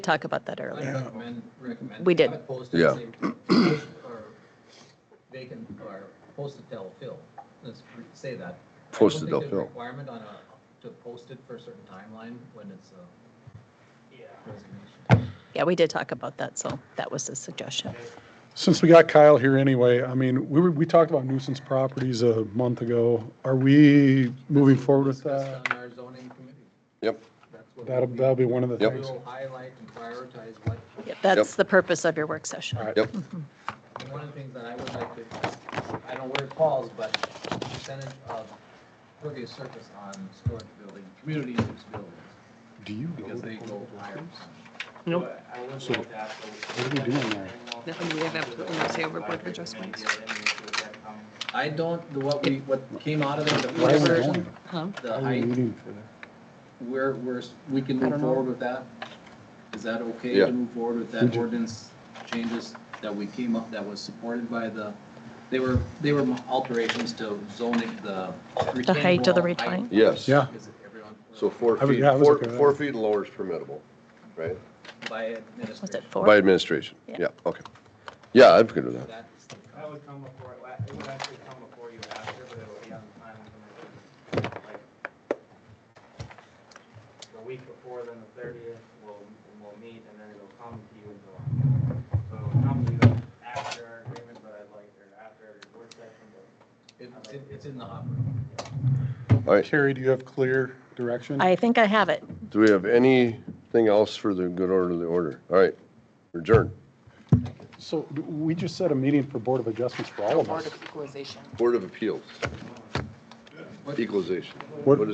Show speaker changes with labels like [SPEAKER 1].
[SPEAKER 1] talk about that
[SPEAKER 2] I
[SPEAKER 1] earlier.
[SPEAKER 2] recommend, recommend.
[SPEAKER 1] We did.
[SPEAKER 2] have it posted,
[SPEAKER 3] Yeah.
[SPEAKER 2] say, post or Vacant or posted till fill, let's re- say that. I don't
[SPEAKER 3] Posted
[SPEAKER 2] think
[SPEAKER 3] till
[SPEAKER 2] there's a
[SPEAKER 3] fill.
[SPEAKER 2] Requirement on a, to post it for a certain timeline when it's a
[SPEAKER 4] Uh,
[SPEAKER 2] resignation.
[SPEAKER 1] Yeah, we did talk about that, so that was the suggestion.
[SPEAKER 4] Since we got Kyle here anyway, I mean, we were, we talked about nuisance properties a month ago. Are we moving forward with that?
[SPEAKER 2] Discussed On our zoning committee,
[SPEAKER 3] Yep,
[SPEAKER 2] that's what.
[SPEAKER 4] That'll, that'll be one of the
[SPEAKER 3] Yep.
[SPEAKER 4] things.
[SPEAKER 2] We'll highlight and prioritize what,
[SPEAKER 1] Yeah, That's the purpose of your work session.
[SPEAKER 4] All right.
[SPEAKER 3] yep,
[SPEAKER 2] and one of the things that I would like to, I don't know where it falls, but percentage of pervious surface on storage building, community use buildings.
[SPEAKER 4] Do you go
[SPEAKER 2] Because
[SPEAKER 4] to
[SPEAKER 2] they go
[SPEAKER 4] Portland
[SPEAKER 2] higher.
[SPEAKER 4] Hills?
[SPEAKER 5] Nope.
[SPEAKER 4] So what are we doing there?
[SPEAKER 6] Nothing we have to say over board adjustments.
[SPEAKER 2] I don't, the- what we, what came out of it, the
[SPEAKER 4] Why are we
[SPEAKER 2] whatever,
[SPEAKER 4] going?
[SPEAKER 1] Uh-huh.
[SPEAKER 2] the
[SPEAKER 4] Why are we
[SPEAKER 2] height,
[SPEAKER 4] meeting for that?
[SPEAKER 2] we're, we're, we can move forward with that? Is that okay
[SPEAKER 3] Yeah.
[SPEAKER 2] to move forward with that
[SPEAKER 4] Mhm.
[SPEAKER 2] ordinance changes that we came up, that was supported by the, they were, they were alterations to zoning, the
[SPEAKER 1] The height of the
[SPEAKER 2] retaining wall
[SPEAKER 1] retain.
[SPEAKER 2] height.
[SPEAKER 3] yes.
[SPEAKER 4] Yeah.
[SPEAKER 2] Is it everyone,
[SPEAKER 3] So four
[SPEAKER 4] I was-
[SPEAKER 3] feet,
[SPEAKER 4] yeah, I was
[SPEAKER 3] four,
[SPEAKER 4] okay with
[SPEAKER 3] four
[SPEAKER 4] that.
[SPEAKER 3] feet and lower is permittable, right?
[SPEAKER 2] by
[SPEAKER 1] Was it
[SPEAKER 2] administration?
[SPEAKER 3] By
[SPEAKER 1] four?
[SPEAKER 3] administration,
[SPEAKER 1] Yeah.
[SPEAKER 3] yeah, okay. Yeah, I'm good with that.
[SPEAKER 2] That's the-
[SPEAKER 5] That would come before, it la- it would actually come before you after, but it would be on the final committee. like, The week before, then the thirtieth, we'll, we'll meet, and then it'll come to you in July. So it'll come to you after our agreement, but I'd like, or after our work session, but
[SPEAKER 2] It's, in- it's in the hopper.
[SPEAKER 3] All right,
[SPEAKER 4] Carrie, do you have clear direction?
[SPEAKER 1] I think I have it.
[SPEAKER 3] do we have anything else for the good order of the order? All right, adjourn.
[SPEAKER 4] So d- we just set a meeting for Board of Adjustments for all of us.
[SPEAKER 6] Board of Equalization.
[SPEAKER 3] Board of Appeals,
[SPEAKER 2] What-
[SPEAKER 3] equalization.
[SPEAKER 4] What-
[SPEAKER 3] What